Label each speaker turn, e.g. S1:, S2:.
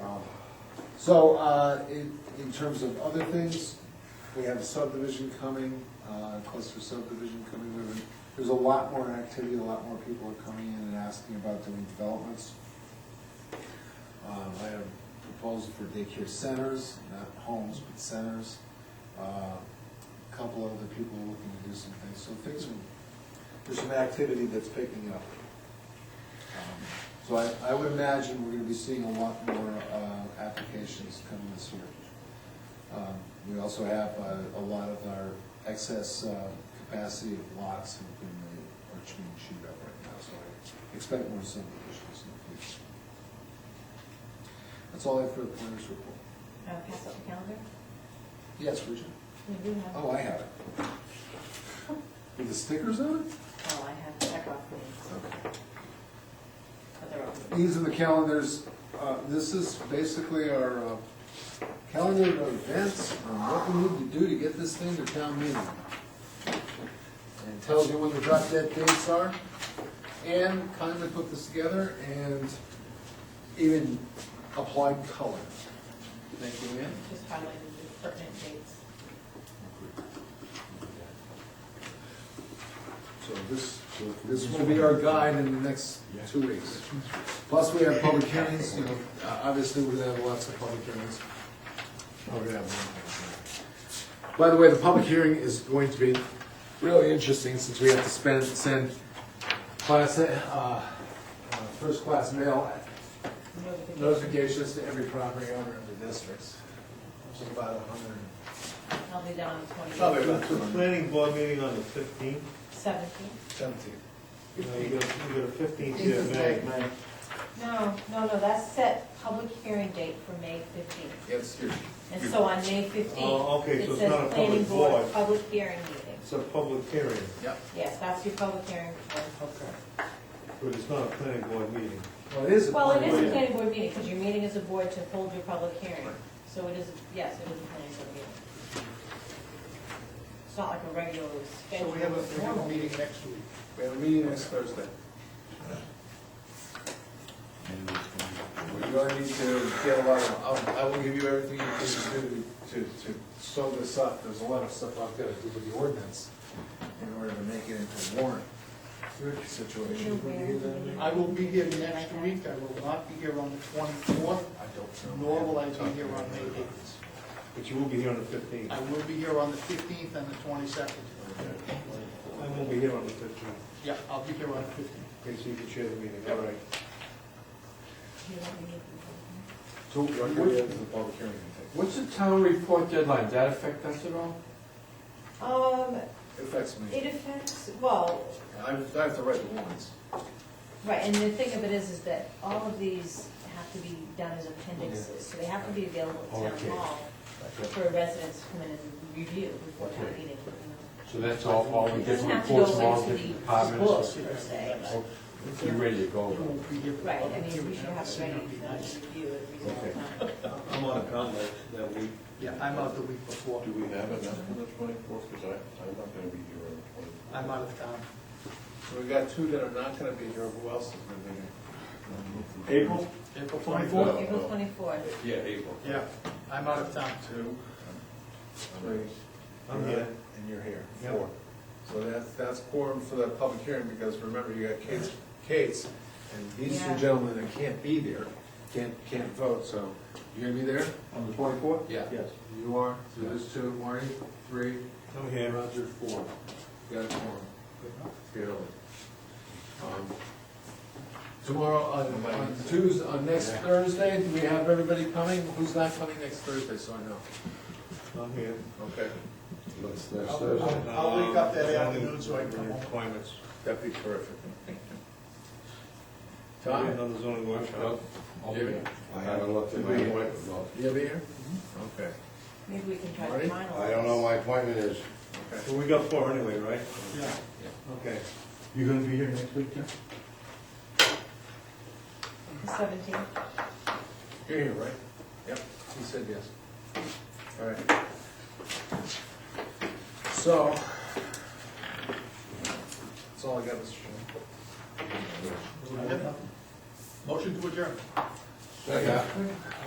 S1: Um, So, uh, in, in terms of other things, we have a subdivision coming, uh, cluster subdivision coming, There- there's a lot more activity, a lot more people are coming in and asking about doing developments. Um, I had a proposal for daycare centers, not homes, but centers. Uh, A Couple other people looking to do some things, so things are, there's some activity that's picking up. Um, So I, I would imagine we're gonna be seeing a lot more, uh, applications coming this year. Um, We also have uh, a lot of our excess uh, capacity of lots have been, uh, are being chewed up right now, so I expect more subdivisions in the future. That's all I have for the planners report.
S2: Uh, pass out the calendar?
S1: Yes, Richard?
S2: We do have.
S1: Oh, I have it. With the stickers on it?
S2: Oh, I have to check off things,
S1: Okay.
S2: but they're open.
S1: These are the calendars, uh, this is basically our uh, calendar of events, on what we need to do to get this thing to town meeting. And tells you when the drop dead dates are. Ann kindly put this together and even applied color. Thank you, Ann.
S2: Just highlighted the pertinent dates.
S1: So this, this will be our guide in the next two weeks. Plus, we have public hearings, you know, uh, obviously, we're gonna have lots of public hearings. Oh, we're gonna have one. By the way, the public hearing is going to be really interesting, since we have to spend, send class, uh, uh, first-class mail notifications to every property owner in the districts, which is about a hundred and
S2: I'll be down on the
S3: Probably
S2: twenty
S3: about the planning board meeting on the fifteenth,
S2: seventeenth.
S1: seventy.
S3: you know, you got, you got a fifteenth here in May.
S2: No, no, no, that's set public hearing date for May fifteenth.
S1: Yes, here.
S2: And so on May fifteenth.
S3: Oh, okay, so it's not a
S2: It says planning
S3: public
S2: board,
S3: board.
S2: public hearing meeting.
S3: It's a public hearing,
S1: Yep.
S2: Yes, that's your public hearing. for-
S3: but it's not a planning board meeting.
S1: Well, it is a.
S2: Well, it is a
S3: board.
S2: planning board meeting, because you're meeting as a board to hold your public hearing. So it is, yes, it is a planning board meeting. It's not like a regular
S4: So
S2: schedule.
S4: we have a, we have a meeting next week.
S1: We have a meeting next Thursday. We're gonna need to get a lot of, I'll- I will give you everything you need to do to, to sew this up. There's a lot of stuff I've gotta do with the ordinance in order to make it into a warrant situation.
S4: I will be here next week, I will not be here on the twenty-fourth,
S1: I don't know.
S4: nor will I be here on May eighth.
S3: But you will be here on the fifteenth.
S4: I
S3: I
S4: will be here on the fifteenth and the twenty-second.
S3: won't be here on the fifteenth,
S4: Yeah, I'll be here on the fifteenth.
S3: okay, so you can share the meeting, all right.
S2: You don't need-
S1: So what could we add to the public hearing?
S5: What's the town report deadline? That affect us at all?
S2: Um,
S1: Affects me.
S2: it affects, well,
S1: I have I have to write the warrants.
S2: right, and the thing of it is, is that all of these have to be done as appendixes, so they have to be available at town
S5: Okay.
S2: hall for residents to come in and review before town
S5: Okay.
S2: meeting. you know.
S5: So that's all, all the
S2: It doesn't
S5: different
S2: have to go
S5: reports from all
S2: into
S5: the
S2: the
S5: different
S2: book per
S5: departments?
S2: se, but-
S5: Oh, You're ready to go,
S4: You
S5: though.
S4: won't be here. for the
S2: Right, I
S4: public
S2: mean,
S4: hearing.
S2: we should have it ready for them to review it
S5: Okay.
S2: reasonable time.
S3: I'm on a conlet that week.
S4: Yeah, I'm out the week before,
S6: Do we have enough for the twenty-fourth, because I, I'm not gonna be here on the twenty-fourth.
S4: I'm out of town.
S1: So we got two that are not gonna be here. Who else is gonna be here?
S6: April?
S4: April
S3: Uh,
S6: Twenty-fourth.
S2: uh, April
S6: well.
S2: twenty-fourth,
S6: Yeah, April.
S4: Yeah, I'm out of town.
S1: Two. Three.
S3: I'm here.
S1: And you're here,
S3: Yep.
S1: four. So that's, that's quorum for that public hearing, because remember, you got Kate's, Kate's, and these two
S2: Yeah.
S1: gentlemen that can't be there, can't, can't vote, so you gonna be there?
S3: On the twenty-fourth?
S1: Yeah.
S3: Yes.
S1: You are, so there's two, Marty, three,
S3: I'm
S1: and
S3: here.
S1: Roger, four. You got a quorum. Fairly. Um, Tomorrow, on, on Tuesday, on next Thursday, do we have everybody coming? Who's not coming next Thursday, so I know?
S3: I'm here.
S1: Okay.
S4: I'll I'll wake up that afternoon so I can come home.
S3: Um, Appointments.
S1: That'd be terrific.
S3: I'll be
S1: Tom?
S3: Another zoning workshop.
S5: I'll be
S1: Yeah.
S5: there.
S6: I haven't looked at my appointment.
S1: You'll be here?
S6: Mm-hmm.
S1: Okay,
S2: maybe we can try
S1: Marty?
S2: to finalize.
S6: I don't know my appointment is.
S1: okay.
S3: Well, we got four anyway, right?
S4: Yeah.
S3: Okay.
S6: You gonna be here next week, Jeff?
S2: The seventeenth,
S1: You're here, right? Yep, he said yes. All right. So, that's all I got, Mr. Chairman.
S4: Motion to adjourn.
S6: Yeah.